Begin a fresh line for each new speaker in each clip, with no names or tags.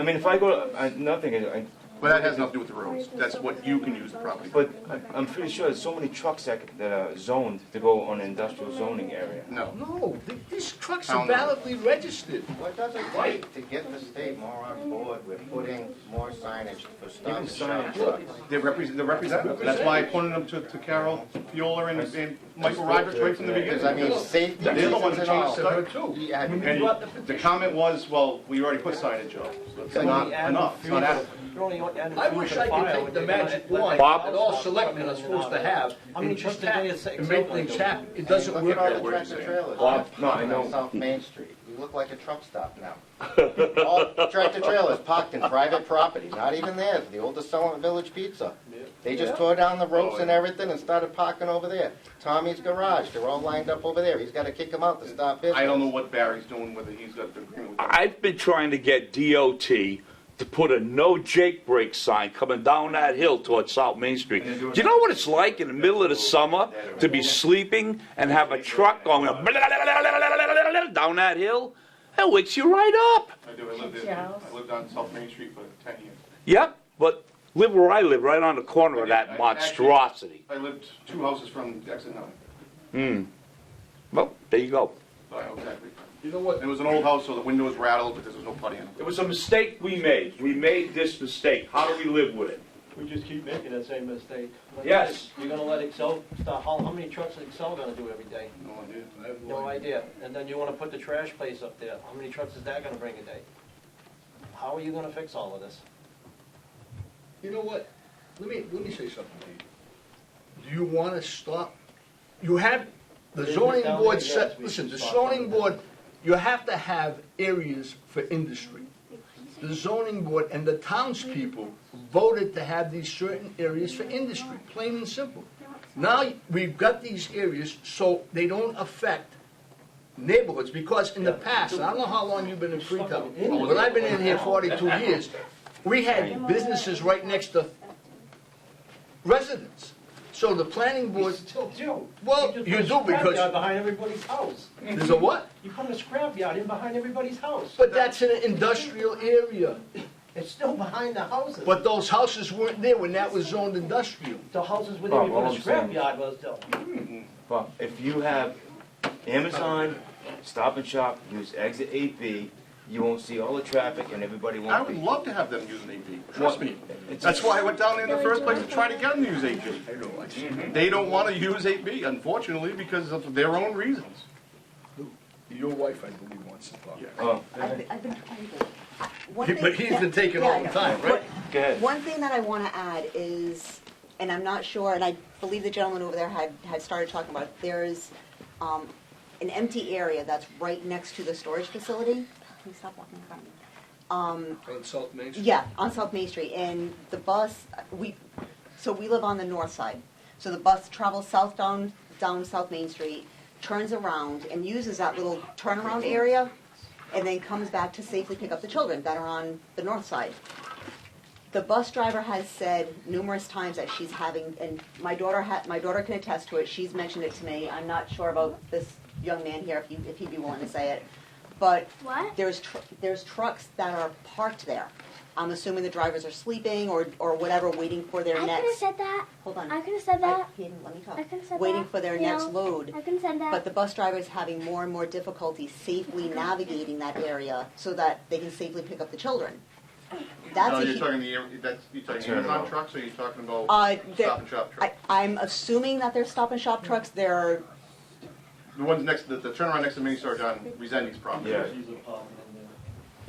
I mean, if I go, I, nothing, I, I-
But that has nothing to do with the roads. That's what you can use the property. for.
but I- I'm pretty sure there's so many trucks that, that are zoned to go on industrial zoning area.
No.
No, th- these trucks
How
are
no?
validly registered.
What does it take to get the state more on board with putting more signage for stop
Even
and shop
signage.
trucks?
They're represent, they're representative. That's why I pointed them to, to Carol Fiola and, and Michael Rogers right from the
Because I
beginning.
mean, safety
They're the ones
reasons
that
and
changed
all.
the code too.
Yeah,
And the comment was, well, we already put signage up. So It's not enough, it's not adequate.
I wish I could take the magic wand
Bob?
that all selectmen are supposed to have and just tap and make things happen. It doesn't
Look
work
at all
that
the
way.
tractor trailers.
no, I know.
On South Main Street. You look like a truck stop now. All tractor trailers parked in private property, not even theirs, the old Desolate Village Pizza. They just tore down the ropes and everything and started parking over there. Tommy's Garage, they're all lined up over there. He's gotta kick them out to stop his.
I don't know what Barry's doing, whether he's got the agreement with them.
I've been trying to get DOT to put a no Jake brake sign coming down that hill towards South Main Street. Do you know what it's like in the middle of the summer to be sleeping and have a truck going down that hill? That wakes you right up.
I do, I lived in, I lived on South Main Street for ten years.
Yep, but live where I live, right on the corner of that monstrosity. Hmm.
I lived two houses from exit nine.
Well, there you go.
So I know exactly.
You know what?
It was an old house, so the windows rattled because there was no putty in
It
them.
was a mistake we made. We made this mistake. How do we live with it?
We just keep making that same mistake. Like
Yes.
You're gonna let Excel start, how, how many trucks is Excel gonna do every day?
No idea.
No idea. And then you wanna put the trash place up there, how many trucks is that gonna bring a day? How are you gonna fix all of this?
You know what? Let me, let me say something to you. Do you want to stop? You have, the
Business
zoning
down
board
there, yes,
set,
we
listen, the
stop
zoning
down there.
board, you have to have areas for industry. The zoning board and the townspeople voted to have these certain areas for industry, plain and simple. Now, we've got these areas so they don't affect neighborhoods, because in the past, and I don't know how long you've been in Freetown, but I've been in here forty-two years, we had businesses right next to residents. So the planning board,
Still do.
Well,
just
you
put a
do because-
scrapyard Behind everybody's house.
there's a what?
You put a scrapyard in behind everybody's house.
But that's in an industrial area.
It's still behind the houses.
But those houses weren't there when that was zoned industrial.
The houses were
Bob,
there before
all
the
Oh, I'm saying-
scrapyard was though.
But if you have Amazon, Stop and Shop, use exit eight B, you won't see all the traffic and everybody
I
won't
would
be.
love to have them use an AV, trust me.
It's-
That's why I went down there in the first place to try to get them to use AV. They don't want to use AV, unfortunately, because of their own reasons.
Your wife, I believe, wants to talk.
Oh,
I've I've been trying to. one
He-
thing-
But he's been taking
yeah,
all
I
the
know.
time, right?
go ahead.
One thing that I want to add is, and I'm not sure, and I believe the gentleman over there had, had started talking about, it, there's um, an empty area that's right next to the storage facility. Can you stop walking in front of me?
On South Main Street.
Yeah, on South Main Street, and the bus, we, so we live on the north side. So the bus travels south down, down South Main Street, turns around and uses that little turnaround area, and then comes back to safely pick up the children that are on the north side. The bus driver has said numerous times that she's having, and my daughter ha, my daughter can attest to it, she's mentioned it to me, I'm not sure about this young man here, if you, if he'd be willing to say it, but
What?
there's, tr- there's trucks that are parked there. I'm assuming the drivers are sleeping or, or whatever, waiting for their
I could have
next.
said that.
Hold on.
I could have said
I-
that.
he didn't let me talk.
I could have said
Waiting
that.
for their
No,
next load.
I could have said that.
But the bus driver is having more and more difficulty safely navigating that area so that they can safely pick up the children. That's
No,
a uh,
you're
huge.
talking the, that's, you're talking
Turn it
Amazon
off.
trucks, or you're talking about
Uh, the-
Stop and Shop
I,
trucks?
I'm assuming that they're stop and shop trucks, they're,
The ones next, the the turnaround next to Mini Storage on Resendi's property.
Yeah.
She's a problem in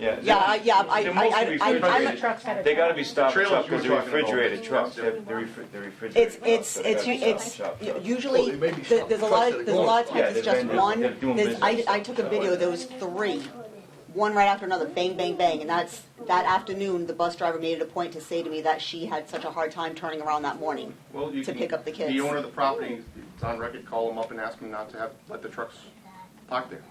there.
yeah.
yeah, I- yeah, I,
They're
I, I,
mostly
I, I'm a
refrigerated. They gotta be Stop and
Trailers
Shop
you were
because they're
talking about.
refrigerated trucks, they're they're refri- they're refrigerated.
It's, it's,
trucks.
it's,
They're gotta be
it's,
Stop and Shop trucks.
Oh,
usually,
there may be
th-
some
there's a
trucks
lot,
that are
of there's a lot of
going. Yeah,
times it's
they're
just
doing-
one.
they're doing
There's, I,
business.
I took a video, there was three, one right after another, bang, bang, bang. And that's, that afternoon, the bus driver made it a point to say to me that she had such a hard time turning around that morning.
Well, you
To
can-
pick up the kids.
The owner of the property, it's on record, call them up and ask them not to have, let the trucks park there.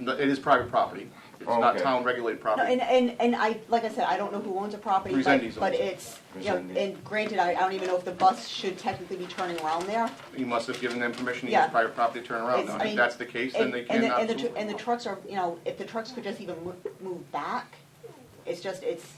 No, It is private property, it's
Oh,
not
okay.
town regulated
No,
property.
and, and, and I, like I said, I don't know who owns the property,
Resendiz owns
but, but
it.
it's, you know,
Resendiz.
and granted, I, I don't even know if the bus should technically be turning around there.
You must have given them permission to
Yeah.
use private property to turn around.
It's-
Now,
I
If
mean,
that's the case, then
And,
they
and the,
cannot.
and the, tr- and the trucks are, you know, if the trucks could just even move, move back, It's just, it's,